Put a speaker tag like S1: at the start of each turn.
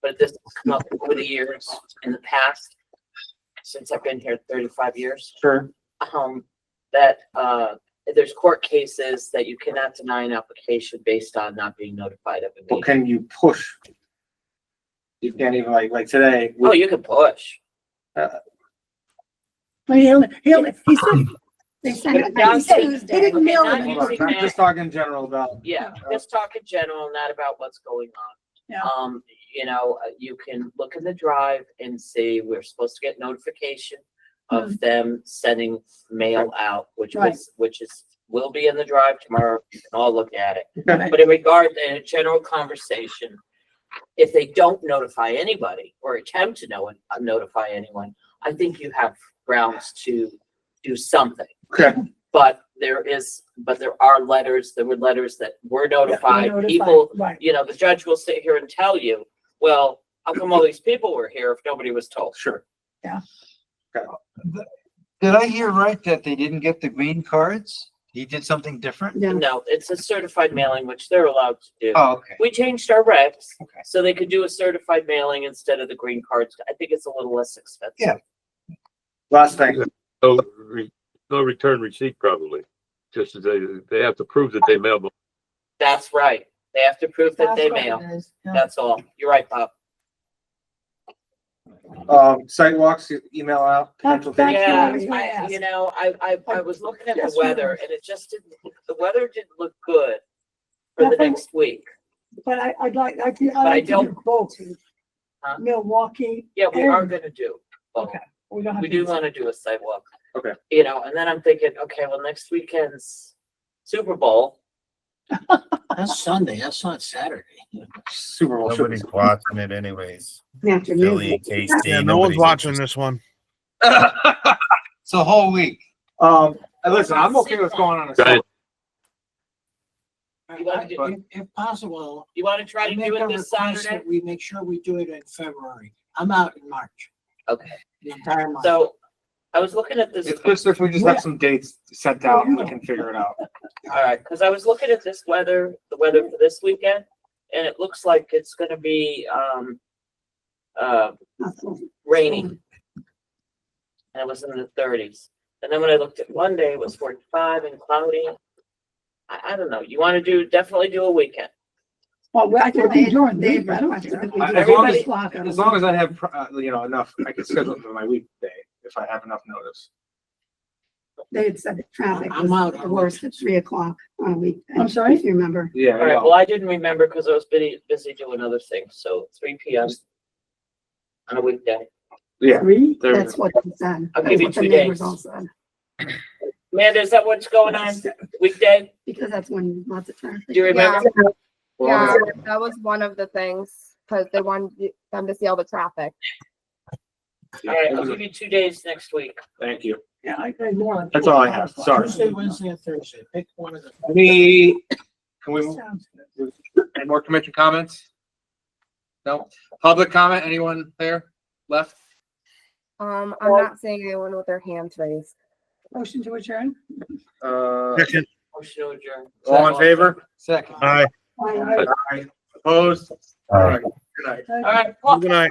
S1: but this has come up over the years in the past, since I've been here thirty-five years,
S2: Sure.
S1: um, that, uh, there's court cases that you cannot deny an application based on not being notified of a
S2: Well,
S1: meeting.
S2: can you push? You can't even like, like today,
S1: Oh,
S2: we-
S1: you can push.
S3: Well, he'll, he'll, he said, they sent it,
S1: But
S3: he
S1: it's
S3: said,
S1: on
S3: they didn't mail
S1: Tuesday.
S3: it.
S2: hold on, I'm just talking general about,
S1: Yeah, just talk in general, not about what's going on.
S3: Yeah.
S1: Um, you know, uh, you can look in the drive and see, we're supposed to get notification of them sending mail out, which
S3: Hmm. Right.
S1: was, which is, will be in the drive tomorrow. You can all look at it.
S2: Okay.
S1: But in regard to a general conversation, if they don't notify anybody or attempt to know, uh, notify anyone, I think you have grounds to do something.
S2: okay,
S1: But there is, but there are letters, there were letters that were notified,
S3: Notified,
S1: people,
S3: Right,
S1: you know, the judge will sit here and tell you, well, how come all these people were here if nobody was told?
S2: sure.
S4: Did I hear right that they didn't get the green cards? He did something different?
S3: yeah,
S1: No, it's a certified mailing, which they're allowed to do.
S4: Oh, okay.
S1: We changed our regs,
S4: Okay.
S1: so they could do a certified mailing instead of the green cards. I think it's a little less expensive.
S4: Yeah.
S2: Last thing,
S5: No, re- no return receipt probably, just as they, they have to prove that they mailed. them.
S1: That's right. They have to prove that they mail. That's all. You're right, Bob.
S2: um, sidewalks, email out, potential
S3: Thank
S2: dates.
S3: you.
S1: Yeah, I,
S3: Thank you.
S1: you know, I, I, I was looking at the
S3: Yes, ma'am.
S1: weather and it just didn't, the weather didn't look good for the
S3: Nothing.
S1: next week.
S3: but I, I'd like, I could,
S1: I
S3: I
S1: don't-
S3: do both.
S1: Huh?
S3: Milwaukee,
S1: Yeah, we are gonna do. both.
S3: Okay. we don't have.
S1: We
S3: to-
S1: do wanna do a sidewalk.
S2: Okay.
S1: You know, and then I'm thinking, okay, well, next weekend's Super Bowl.
S4: That's Sunday, that's not Saturday.
S2: Super Bowl. should be-
S6: Nobody's watching it anyways. Philly,
S7: Afternoon.
S6: K
S7: Yeah,
S6: State.
S7: no one's watching this one.
S4: It's a whole week.
S2: Um, and listen, I'm okay with going on a.
S5: Right.
S1: You wanna do-
S8: If, if possible,
S1: You wanna try
S8: I
S1: to
S8: make
S1: do
S8: a
S1: it this
S8: request
S1: Saturday?
S8: that we make sure we do it in February. I'm out in March.
S1: Okay.
S8: The entire month.
S1: So I was looking at this,
S2: It's just if we just have some dates set down, and we can figure it out.
S1: all right, cause I was looking at this weather, the weather for this weekend, and it looks like it's gonna be, um, uh, raining. Oh. And it was in the thirties. And then when I looked at Monday, it was forty-five and cloudy. I, I don't know. You wanna do, definitely do a weekend.
S3: Well, we- I can
S7: Well,
S3: do during the
S7: they-
S3: week, I don't
S7: they-
S3: care.
S2: I- as long as-
S3: Everybody block it.
S2: As long as I have, pro- uh, you know, enough, I can schedule it for my weekday if I have enough notice.
S7: They had said the traffic
S8: I'm out
S7: was the
S8: on
S7: worst at three o'clock on a weekend.
S3: I'm sorry?
S7: If you remember.
S2: Yeah.
S1: All
S2: I
S1: right,
S2: know.
S1: well, I didn't remember because I was busy, busy doing other things, so three P M. On a weekday.
S2: Yeah,
S3: Three,
S2: there we
S7: That's
S2: go.
S7: what they said.
S1: I'll
S7: That's
S1: give you
S7: what the
S1: two
S7: neighbors
S1: days.
S7: all said,
S1: Amanda, is that what's going on? Weekday?
S7: Because that's when lots of traffic.
S1: Do you remember?
S9: Yeah, that was one of the things, because they wanted you- them to see all the traffic.
S1: All right,
S2: Yeah,
S1: I'll give you two days next week.
S2: Thank you.
S3: yeah, I agree more.
S2: That's all I have. Sorry.
S8: Tuesday, Wednesday, and Thursday. Pick one of the.
S2: Any, can we,
S3: Sounds good.
S2: any more commission comments? No, public comment, anyone there left?
S9: Um, I'm not seeing anyone with their hands raised.
S3: Motion to adjourn?
S2: Uh,
S7: Second.
S1: Motion to adjourn.
S2: all in favor?
S4: Second.
S7: Aye.
S3: Aye, aye.
S2: Opposed? All right, good night.
S1: All right, Paul,
S7: Good night.